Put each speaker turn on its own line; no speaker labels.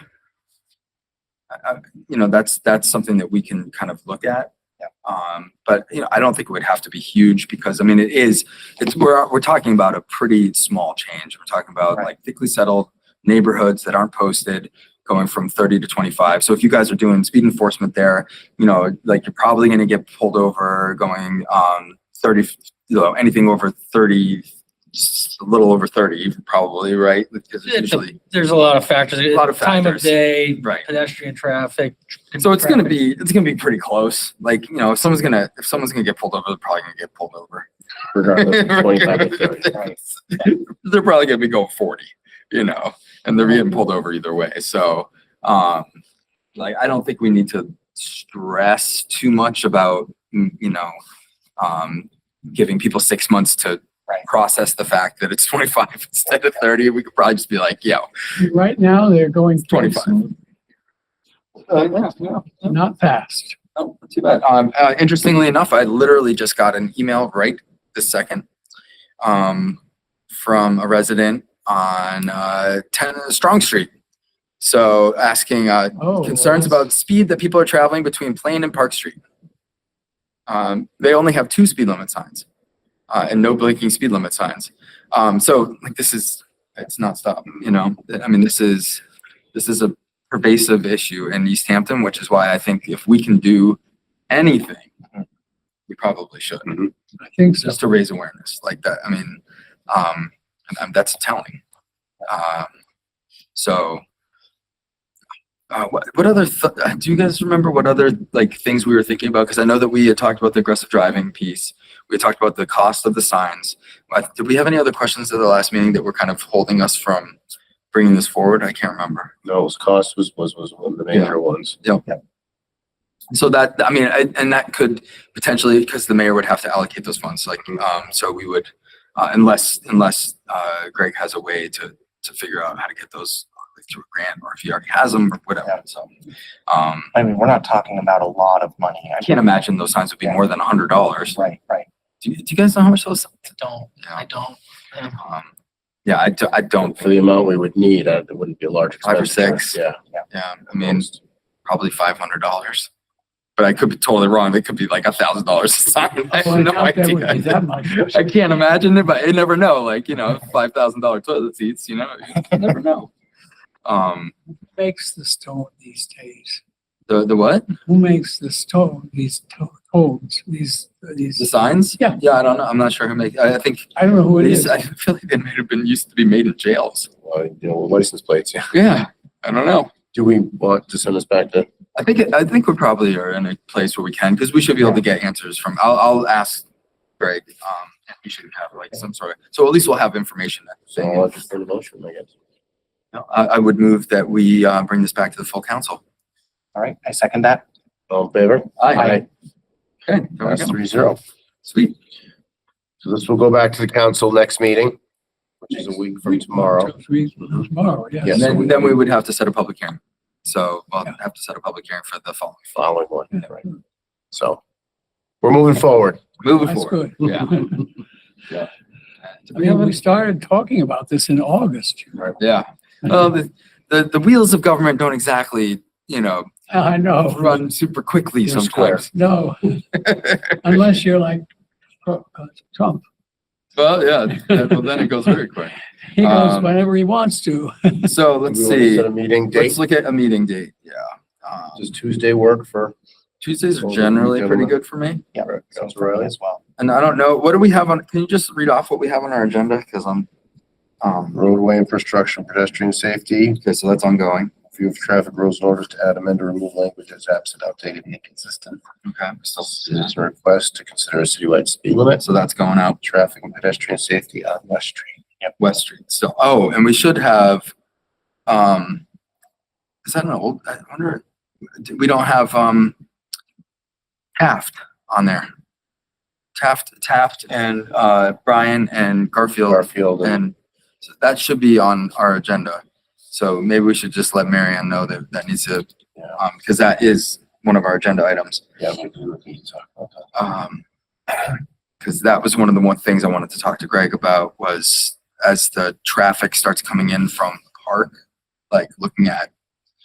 I- I- you know, that's, that's something that we can kind of look at.
Yeah.
Um, but, you know, I don't think it would have to be huge because, I mean, it is, it's, we're, we're talking about a pretty small change. We're talking about
Right.
like thickly settled neighborhoods that aren't posted going from thirty to twenty-five. So if you guys are doing speed enforcement there, you know, like you're probably gonna get pulled over going, um, thirty, you know, anything over thirty, just a little over thirty probably, right? Because it's
It's a-
usually,
There's a lot of factors.
A lot of
Time of
factors.
day,
right.
pedestrian traffic.
So it's gonna
traffic.
be, it's gonna be pretty close. Like, you know, if someone's gonna, if someone's gonna get pulled over, they're probably gonna get pulled over.
regardless, of 25 to 30.
Right.
They're probably gonna be going forty, you know, and they're getting pulled over either way. So, um, like, I don't think we need to stress too much about, mm, you know, um, giving people six months to
Right.
process the fact that it's twenty-five instead of thirty. We could probably just be like, yo,
Right now, they're going.
25.
fast,
uh, yeah, yeah.
Not fast.
Oh, not too bad. Um, uh, interestingly enough, I literally just got an email right this second, um, from a resident on, uh, ten, Strong Street. So asking, uh,
Oh.
concerns about speed that people are traveling between Plain and Park Street. Um, they only have two speed limit signs, uh, and no blinking speed limit signs. Um, so like this is, it's not stop, you know, I mean, this is, this is a pervasive issue in East Hampton, which is why I think if we can do anything, we probably should,
I think so.
just to raise awareness like that. I mean, um, and- and that's telling. Um, so uh, what, what other, th- uh, do you guys remember what other like things we were thinking about? Because I know that we had talked about the aggressive driving piece. We talked about the cost of the signs. Uh, Did we have any other questions at the last meeting that were kind of holding us from bringing this forward? I can't remember.
No, his cost was, was, was one of the major ones.
So that, I mean, I- and that could potentially, because the mayor would have to allocate those funds, like, um, so we would, uh, unless, unless, uh, Greg has a way to, to figure out how to get those like, through a grant, or if he already has them, or whatever, so. Um,
I mean, we're not talking about a lot of money.
I can't imagine those signs would be more than a hundred dollars.
Right, right.
Do, you- do you guys know how much those?
I don't, I don't. um,
Um, yeah, I, do, I don't.
Um, For the amount we would need, uh, it wouldn't be a large
Five or
expense.
six.
Yeah.
Yeah, I mean, probably five hundred dollars. But I could be totally wrong. It could be like a thousand dollars a sign. I
Well,
have no
doubt that would be
idea.
That much.
I can't imagine it, but you never know. Like you know, five thousand dollar toilet seats. You know, you never know. Um,
Makes the stone these days.
the the what?
Who makes the stone, these to- tones, these,
The
these,
signs?
Yeah.
Yeah, I don't know. I'm not sure who make. I I think
I don't know who it
these.
is.
I feel like they might have been used to be made in jails.
Well, uh, you know, with license plates, yeah.
Yeah, I don't know.
Do we want to send this back to,
I think, I think we probably are in a place where we can, because we should be able to get answers from, I'll, I'll ask Greg, um, and we should have like some sort of, so at least we'll have information. then.
so I'll just send a motion, I guess.
No, I, I would move that we, uh, bring this back to the full council.
All right, I second that.
All in favor?
Aye.
Okay, there we
That's
go.
three zero.
Sweet.
So this will go back to the council next meeting, which is a week from tomorrow.
Three- Tomorrow, yes.
Yeah,
And
so
Mm-hmm. then,
we-
then we would have to set a public hearing. So we'll have to set a public hearing for the following.
following one, right? So we're moving forward.
Moving
That's
forward.
good.
Yeah.
I mean, we started talking about this in August.
Yeah. Well, the, the, the wheels of government don't exactly, you know,
I know,
run super quickly
Oh. They're square.
sometimes.
no. Unless you're like uh, uh, Trump.
Well, yeah, well, then it goes very quick.
He goes
Um,
whenever he wants to.
So let's
Do we want to
see.
Set a meeting date.
Let's look at a meeting date, yeah. Um,
Does Tuesday work for?
Tuesdays are
Well,
generally
we
pretty
can-
good for me.
Yeah.
Sounds
For me
right.
As well.
And I don't know, what do we have on, can you just read off what we have on our agenda? Because I'm, um,
Roadway infrastructure, pedestrian safety,
okay, so that's ongoing.
view of traffic rules and orders to add, amend, or remove language that's absent, outdated, and inconsistent.
Okay.
Citizen request to consider a citywide speed limit,
So that's going out
traffic and pedestrian safety on West Street.
West Street. So, oh, and we should have, um, is that an old, I wonder, we don't have, um, Taft on there. Taft, Taft and, uh, Brian and Garfield
Garfield and
And so that should be on our agenda. So maybe we should just let Marianne know that that needs to,
Yeah.
um, because that is one of our agenda items.
Yeah, we do need to talk about that.
Um, because that was one of the one things I wanted to talk to Greg about was as the traffic starts coming in from the park, like looking at